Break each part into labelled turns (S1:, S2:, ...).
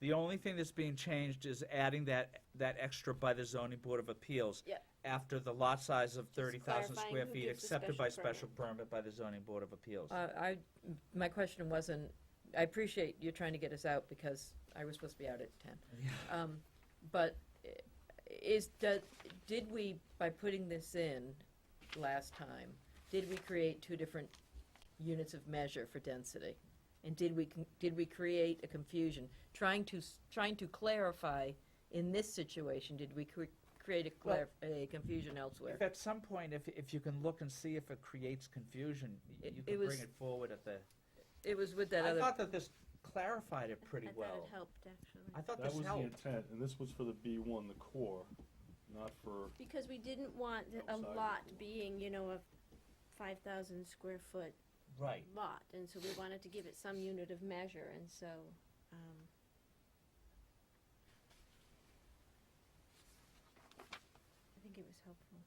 S1: The only thing that's being changed is adding that, that extra by the zoning board of appeals.
S2: Yep.
S1: After the lot size of thirty thousand
S2: clarifying
S1: square
S2: who
S1: feet
S2: gives the
S1: accepted by special
S2: special
S1: permit by the zoning board of appeals.
S3: Uh, I, my question wasn't, I appreciate you trying to get us out because I was supposed to be out at ten.
S1: Yeah.
S3: Um, but i- is, does, did we, by putting this in last time, did we create two different units of measure for density? And did we, con- did we create a confusion? Trying to, s- trying to clarify in this situation, did we cre- create a clar, a confusion elsewhere?
S1: If at some point, if, if you can look and see if it creates confusion, y-
S3: It-
S1: you
S3: it
S1: can bring
S3: was-
S1: it forward at the,
S3: It was with that
S1: I
S3: other.
S1: thought that this clarified it pretty
S2: I
S1: well.
S2: thought it helped, actually.
S1: I thought
S4: That
S1: this
S4: was the
S1: helped.
S4: intent, and this was for the B one, the core, not for,
S2: Because we didn't want th- a
S4: Outside.
S2: lot being, you know, a five thousand square foot
S1: Right.
S2: lot, and so we wanted to give it some unit of measure, and so, um, I think it was helpful.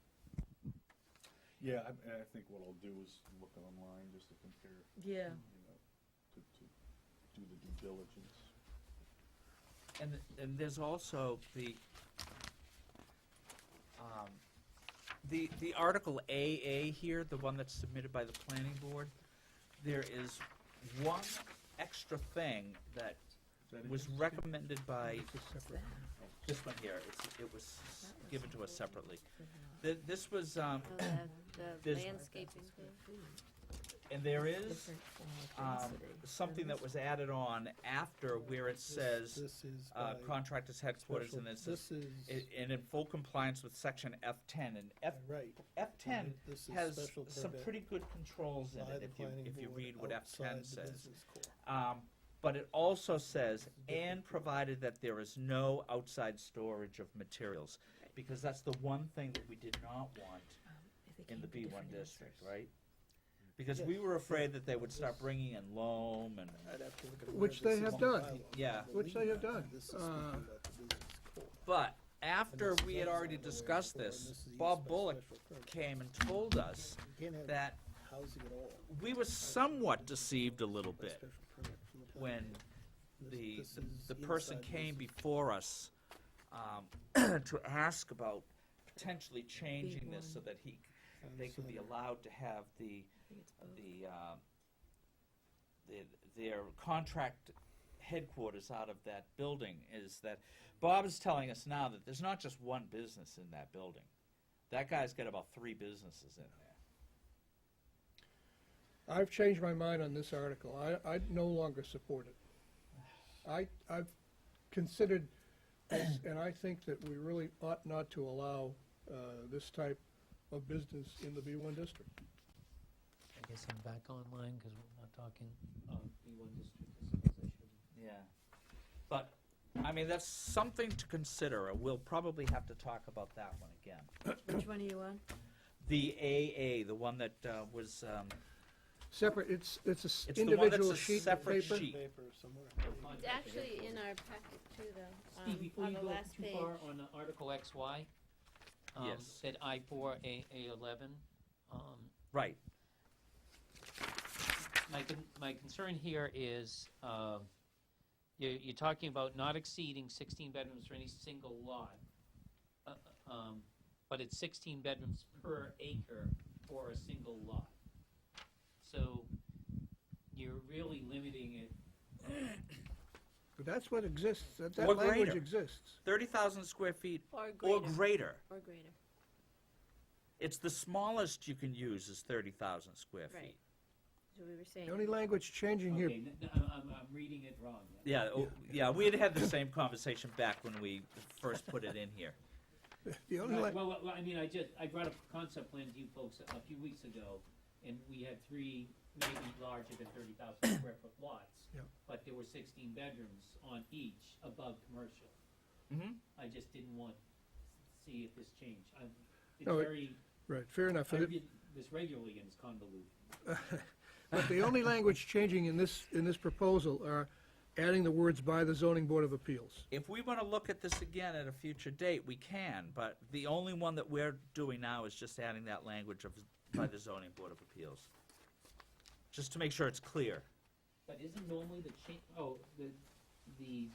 S4: yeah, I, I think what I'll do is look online just to compare,
S3: Yeah.
S4: you know, to, to do the due diligence.
S1: And, th- and there's also the, um, the, the Article AA here, the one that's submitted by the planning board, there is one extra thing that
S4: Is that it?
S1: was recommended by,
S3: that?
S1: this one here, it's, it was
S3: That was
S1: given to us separately.
S3: Mhm.
S1: Th- This was, um,
S2: So the, the
S1: There's-
S2: landscaping,
S1: and there is
S3: Different form of
S1: um,
S3: density.
S1: something that was added on after where it says
S5: This is
S1: uh,
S5: by
S1: contractors headquarters
S5: special-
S1: and uh, it says,
S5: This is,
S1: i- and in full compliance with section F10. And F,
S5: right.
S1: F10
S5: This is
S1: has
S5: special
S1: some
S5: permit
S1: pretty good controls in
S5: by
S1: it
S5: the
S1: if you,
S5: planning
S1: if you
S5: board
S1: read what
S5: outside
S1: F10
S5: the
S1: says.
S5: business core.
S1: Um, but it also says,
S5: different.
S1: and provided that there is no outside storage of materials,
S2: Right.
S1: because that's the one thing that we did not want
S3: Um, if they
S1: in the
S3: came
S1: B
S3: to
S1: one
S3: different
S1: district,
S3: answers.
S1: right? Because we
S5: Yes, Uh,
S1: were
S5: yeah.
S1: afraid that they would start bringing in loam and,
S5: I'd have to look at where
S6: Which they
S5: this is
S6: have
S5: on the
S6: done.
S5: bylaw.
S1: Yeah.
S6: Which they have done.
S5: This is speaking
S6: Uh,
S5: about the business core.
S1: but after
S5: And this
S1: we
S5: is
S1: had
S5: on
S1: already
S5: the way
S1: discussed
S5: before, and
S1: this,
S5: this is used
S1: Bob
S5: by
S1: Bullock
S5: special permit.
S1: came and told us
S5: You can't have
S1: that
S5: housing at all
S1: we were somewhat deceived a little
S5: by
S1: bit
S5: special permit from the planning
S1: when
S5: board. This-
S1: the,
S5: this
S1: the-
S5: is
S1: the person
S5: inside
S1: came
S5: business.
S1: before us, um, to ask about potentially changing this so
S3: one.
S1: that he,
S5: I
S1: they could be
S5: understand.
S1: allowed to have the,
S3: I think it's both.
S1: the, um, the, their contract headquarters out of that building is that, Bob is telling us now that there's not just one business in that building. That guy's got about three businesses in there.
S6: I've changed my mind on this article. I, I no longer support it. I, I've considered this, and I think that we really ought not to allow, uh, this type of business in the B one district.
S7: I guess I'm back online because we're not talking um, B1 district as much as I should.
S1: Yeah. But, I mean, that's something to consider, and we'll probably have to talk about that one again.
S3: Which one are you on?
S1: The AA, the one that, uh, was, um,
S6: Separate, it's, it's a s-
S1: It's the one that's
S6: individual
S1: a
S6: sheet of
S1: separate
S6: paper.
S1: sheet.
S5: Paper somewhere.
S2: it's actually in our packet too,
S7: Steve,
S2: though,
S7: before
S2: um, on
S7: you
S2: the
S7: go
S2: last
S7: too
S2: page.
S7: far on the Article XY, um,
S1: Yes.
S7: that I four A, A eleven, um,
S1: right,
S7: my, con- my concern here is, um, you're, you're talking about not exceeding sixteen bedrooms for any single lot. uh, uh, um, But it's sixteen bedrooms per acre for a single lot. So you're really limiting it
S6: That's what exists, that,
S1: Or
S6: that language
S1: greater.
S6: exists.
S1: thirty thousand square feet
S2: Or
S1: or
S2: greater,
S1: greater.
S2: or greater,
S1: It's the smallest you can use is thirty thousand square
S2: Right.
S1: feet.
S2: so we were saying.
S6: The only language changing here,
S7: Okay, n- n- I'm, I'm, I'm reading it wrong. then.
S1: Yeah, oh, yeah, we had had the same conversation back when we first put it in here.
S6: the only,
S7: Right,
S6: la-
S7: Well, well, well, I mean, I just, I brought up a concept plan to you folks a a few weeks ago, and we had three maybe larger than thirty thousand square foot lots.
S6: Yeah.
S7: But there were sixteen bedrooms on each above commercial.
S1: Mhm.
S7: I just didn't want to see if this changed. I'm, it's
S6: No, it-
S7: very,
S6: right, fair enough.
S7: I
S6: It-
S7: read this regularly and it's convoluted.
S6: But the only language changing in this, in this proposal are adding the words by the zoning board of appeals.
S1: If we wanna look at this again at a future date, we can, but the only one that we're doing now is just adding that language of, by the zoning board of appeals. Just to make sure it's clear.
S7: But isn't normally the cha, oh, the, the